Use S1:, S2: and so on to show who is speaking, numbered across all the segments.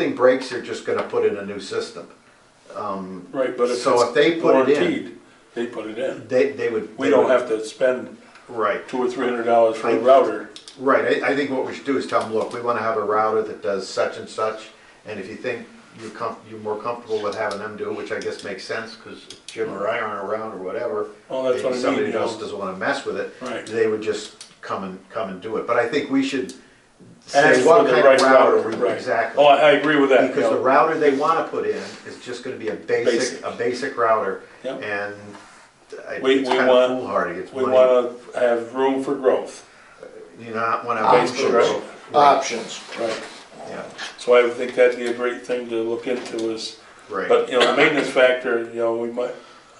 S1: something breaks, they're just gonna put in a new system. Um,
S2: Right, but if
S1: So if they
S2: it's
S1: put it in-
S2: guaranteed, they put it in.
S1: They, they would.
S2: We don't have to spend
S1: Right,
S2: two or three hundred dollars for a router.
S1: right. I, I think what we should do is tell them, look, we wanna have a router that does such and such. And if you think you're com, you're more comfortable with having them do it, which I guess makes sense, cause Jim or I aren't around or whatever.
S2: Oh, that's
S1: and
S2: what I mean,
S1: Somebody
S2: you know.
S1: else doesn't wanna mess with it.
S2: Right.
S1: They would just come and, come and do it. But I think we should
S2: Ask
S1: say
S2: for
S1: what
S2: the
S1: kind
S2: right
S1: of router we,
S2: right.
S1: exactly.
S2: Oh, I, I agree with that.
S1: Because the
S2: yeah.
S1: router they wanna put in is just gonna be a basic,
S2: Basic.
S1: a basic router,
S2: Yep.
S1: and I-
S2: We-
S1: it's
S2: we
S1: kinda
S2: want-
S1: foolhardy, it's
S2: We
S1: money,
S2: wanna have room for growth.
S1: you not wanna.
S2: Options.
S1: Right.
S3: options.
S2: Right.
S1: Yeah,
S2: So I would think that'd be a great thing to look into is,
S1: right,
S2: but, you know, the maintenance factor, you know, we might,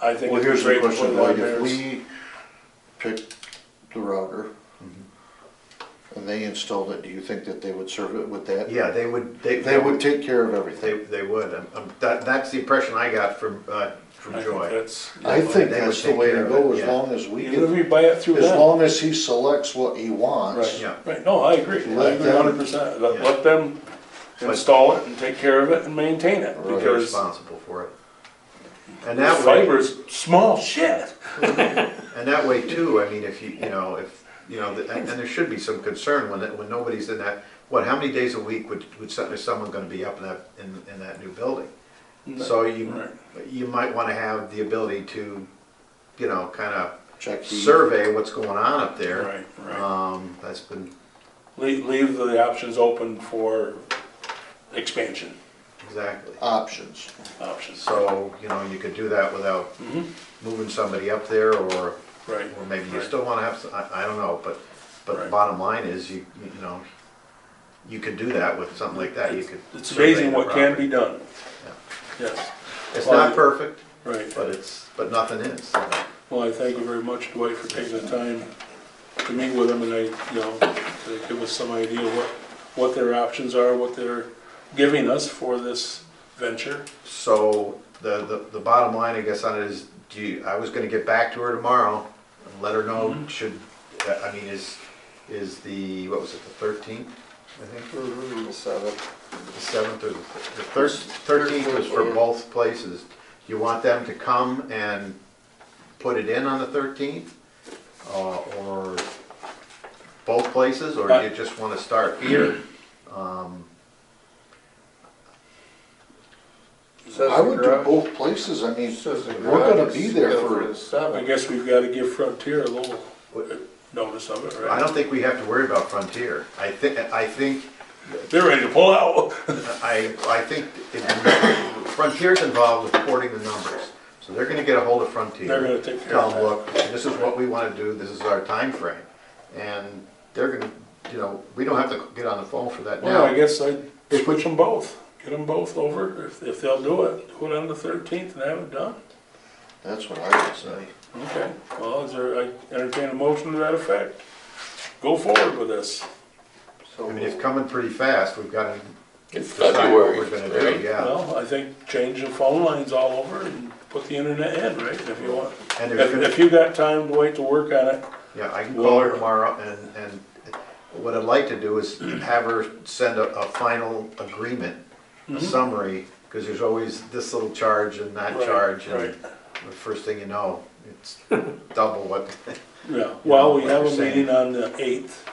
S2: I think.
S3: Well,
S2: it'd be
S3: here's the
S2: great to
S3: question,
S2: put
S3: like,
S2: it on
S3: if
S2: there.
S3: we picked the router and they installed it, do you think that they would serve it with that?
S1: Mm-hmm. yeah, they would, they.
S3: They would take care of
S1: They,
S3: everything.
S1: they would, Um, um, that, that's the impression I got from, uh,
S2: I
S1: from
S2: think
S1: Joy.
S2: that's-
S3: I think
S1: They would
S3: that's the
S1: take
S3: way
S1: care
S3: to
S1: of
S3: go,
S1: it,
S3: as
S1: yeah.
S3: long as we
S2: Even if
S3: get,
S2: we buy it through
S3: as
S2: them.
S3: long as he selects what he wants.
S1: Yeah.
S2: Right, no, I agree, I
S3: Let
S2: agree
S3: them-
S2: hundred percent, let,
S1: Yeah.
S2: let them
S1: But-
S2: install it and take care of it and maintain it,
S3: Right.
S1: They're
S2: because
S1: responsible for it. And that way.
S2: fiber's small shit.
S1: And that way too, I mean, if you, you know, if, you know, th- and and there should be some concern when, it- when nobody's in that, what, how many days a week would, would some- is someone gonna be up in that, in, in that new building? So you, you might wanna have the ability to, you know, kinda
S3: Check the.
S1: survey what's going on up there.
S2: Right, right,
S1: Um, that's been,
S2: leave, leave the options open for expansion
S1: exactly.
S3: Options.
S2: options, Mm-hmm.
S1: So, you know, you could do that without moving somebody up there or,
S2: right,
S1: or maybe you
S2: Right.
S1: still wanna have, some- I, I don't know, but, but the
S2: Right.
S1: bottom line is, you, you know, you could do that with something like that, you could.
S2: it's
S1: survey
S2: amazing
S1: the
S2: what can
S1: property.
S2: be done. Yes,
S1: It's not perfect,
S2: right.
S1: but it's, but nothing is.
S2: Well, I thank you very much, Dwight, for taking the time to meet with them and I, you know, to give us some idea what, what their options are, what they're giving us for this venture.
S1: So the, the, the bottom line, I guess, on it is, do you, I was gonna get back to her tomorrow and let her know, should, uh, I mean, is, is the, what was it, the thirteenth, I think? Mm-hmm. The seventh or the thirteenth was for both places. You want them to come and put it in on the thirteenth? Uh, Or both places, or you just wanna start here? Um,
S3: I would do both places, I mean, we're gonna be there for,
S2: I guess we've got to give Frontier a little notice of it,
S1: I
S2: right?
S1: don't think we have to worry about Frontier. I think, I think,
S2: They're ready to pull out.
S1: I, I think if- Frontier's involved with porting the numbers. So they're gonna get a hold of Frontier.
S2: They're gonna take care
S1: tell
S2: of
S1: them,
S2: that.
S1: look, this is what we want to do, this is our time frame, And they're gonna, you know, we don't have to get on the phone for that
S2: Well, Oh, I
S1: now.
S2: guess I'd switch them both, get them both over, if, if they'll do it, do it on the thirteenth and have it done.
S3: that's what I would say.
S2: Okay, well, is there, I entertain a motion to that effect. Go forward with this.
S1: I mean, it's coming pretty fast, we've got to
S4: It's
S1: decide what we're gonna
S4: February,
S1: do,
S4: right?
S1: yeah.
S2: Well, I think change the phone lines all over and put the internet in, right, if you want.
S1: And there's
S2: If,
S1: gonna,
S2: if you got time to wait to work on it,
S1: yeah, I can call her
S2: Well-
S1: tomorrow and, and what I'd like to do is have her send a, a final agreement, a summary, because there's always this little charge and that
S2: Mm-hmm. Right,
S1: charge. and
S2: right.
S1: The first thing you know, it's double what,
S2: Yeah, well, we
S1: what
S2: have
S1: you're
S2: a
S1: saying.
S2: meeting on the eighth,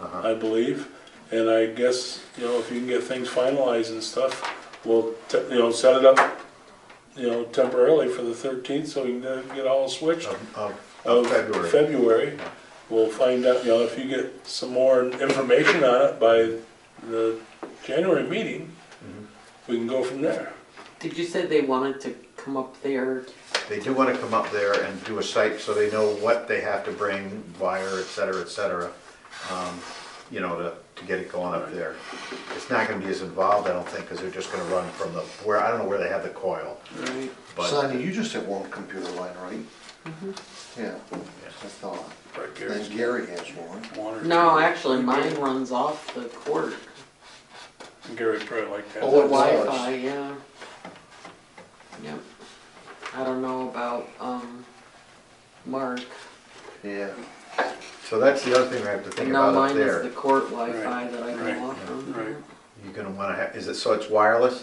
S2: I believe, and I guess, you know, if you can get things finalized and stuff, we'll, te- you know, set it up, you know, temporarily for the thirteenth, so we can then get all switched
S1: of, of-
S2: of
S1: of February.
S2: February. We'll find out, you know, if you get some more information on it by the January meeting, we can go from there.
S5: Did you say they wanted to come up there?
S1: They do want to come up there and do a site so they know what they have to bring, wire, et cetera, et cetera, um, you know, to, to get it going up there. It's not gonna be as involved, I don't think, because they're just gonna run from the, where, I don't know where they have the coil,
S5: Right.
S1: but,
S3: Sonia, you just have one computer line, right? Yeah, I thought.
S2: Right, Gary?
S3: Then Gary has one.
S2: One or
S5: No,
S2: two.
S5: actually, mine runs off the court.
S2: Gary'd probably like that.
S3: Oh, it was.
S5: Wi-Fi, yeah. Yep. I don't know about, um, Mark.
S3: Yeah.
S1: so that's the other thing we have to think
S5: And
S1: about
S5: now
S1: up
S5: mine is the
S1: there.
S5: court Wi-Fi
S2: Right,
S5: that I
S2: right,
S5: go off of.
S2: Right,
S1: You're gonna wanna have, is it, so it's wireless?